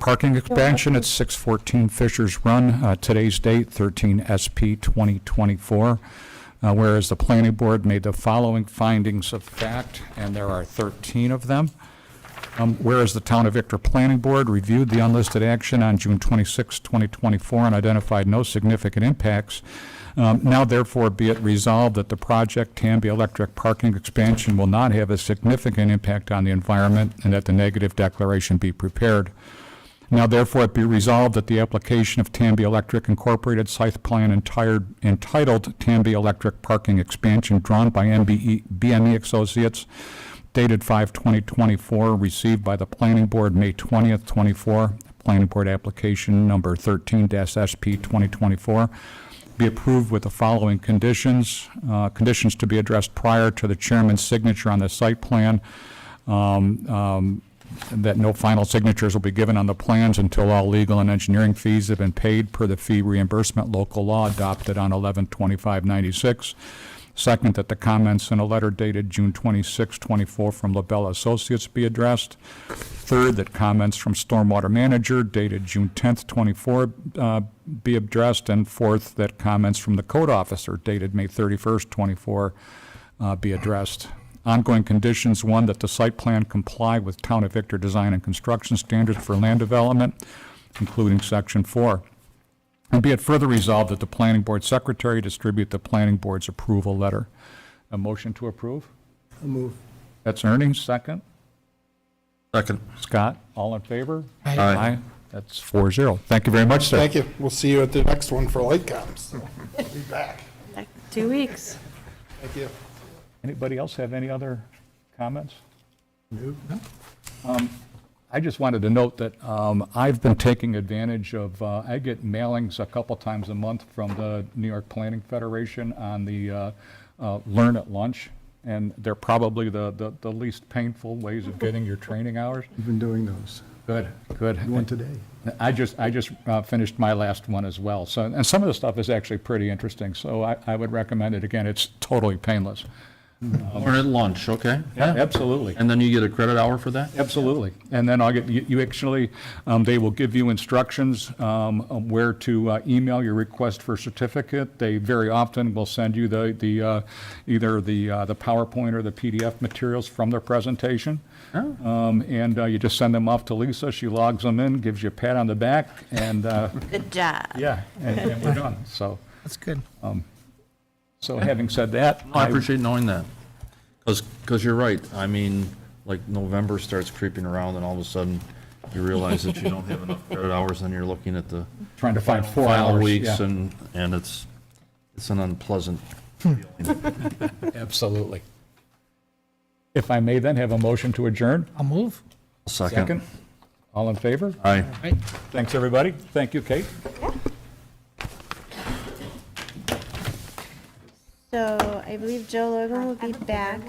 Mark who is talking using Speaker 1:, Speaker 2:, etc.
Speaker 1: parking expansion at 614 Fisher's Run, uh, today's date, 13 SP 2024. Uh, Whereas the planning board made the following findings of fact, and there are 13 of them. Um, Whereas the Town of Victor Planning Board reviewed the unlisted action on June 26, 2024, and identified no significant impacts, um, now therefore be it resolved that the project Tambi Electric Parking Expansion will not have a significant impact on the environment, and that the negative declaration be prepared. Now therefore it be resolved that the application of Tambi Electric Incorporated site plan entired- entitled Tambi Electric Parking Expansion drawn by E, MBE BME Associates dated 5/20/24, received by the Planning Board May 20th, 24, Planning Board Application Number 13-SP 2024, be approved with the following conditions. Uh, Conditions to be addressed prior to the chairman's signature on the site plan that no final signatures will be given on the plans until all legal and engineering fees have been paid per the fee reimbursement local law adopted on 11/25/96. Second, that the comments in a letter dated June 26, 24 from LaBelle Associates be addressed. Third, that comments from Stormwater Manager dated June 10th, 24 uh, be addressed. And fourth, that comments from the code officer dated May 31st, 24 uh, be addressed. Ongoing conditions, one, that the site plan comply with Town of Victor design and construction standards for land development, including Section 4. And be it further resolved that the planning board secretary distribute the planning board's approval letter. A motion to approve?
Speaker 2: I'll move.
Speaker 1: That's Ernie, second.
Speaker 3: Second.
Speaker 1: Scott, all in favor?
Speaker 2: Aye.
Speaker 1: That's four zero. Thank you very much, sir.
Speaker 2: Thank you. We'll see you at the next one for light comps. Be back.
Speaker 4: Like Two weeks.
Speaker 2: Thank you.
Speaker 1: Anybody else have any other comments? Um, I just wanted to note that um, I've been taking advantage of, uh, I get mailings a couple times a month from the New York Planning Federation on the uh, uh, Learn at Lunch, and they're probably the- the the least painful ways of getting your training hours.
Speaker 5: We've been doing those.
Speaker 1: Good, good.
Speaker 5: One today.
Speaker 1: I just, I just uh, finished my last one as well. So, and some of the stuff is actually pretty interesting, so I I would recommend it. Again, it's totally painless.
Speaker 3: Or at lunch, okay?
Speaker 1: Absolutely.
Speaker 3: And then you get a credit hour for that?
Speaker 1: Absolutely. And then I'll get, you you actually, um, they will give you instructions um, on where to uh, email your request for certificate. They very often will send you the, the, uh, either the, uh, the PowerPoint or the PDF materials from their presentation.
Speaker 3: Oh.
Speaker 1: Um, And uh, you just send them off to Lisa, she logs them in, gives you a pat on the back, and, uh,
Speaker 4: Good job.
Speaker 1: yeah, and and we're done. So,
Speaker 2: That's good.
Speaker 1: so having said that.
Speaker 3: I
Speaker 1: I-
Speaker 3: appreciate knowing that. Because, you're right. I mean, like November starts creeping around and all of a sudden you realize that you don't have enough credit hours and you're looking at the
Speaker 1: Trying to find four
Speaker 3: final
Speaker 1: hours.
Speaker 3: weeks
Speaker 1: yeah.
Speaker 3: and, and it's, it's an unpleasant.
Speaker 1: Absolutely. If I may then have a motion to adjourn?
Speaker 6: I'll move.
Speaker 1: Second?
Speaker 3: Second.
Speaker 1: All in favor?
Speaker 3: Aye.
Speaker 1: Thanks, everybody. Thank you, Kate.
Speaker 4: So I believe Joe Logan will be back.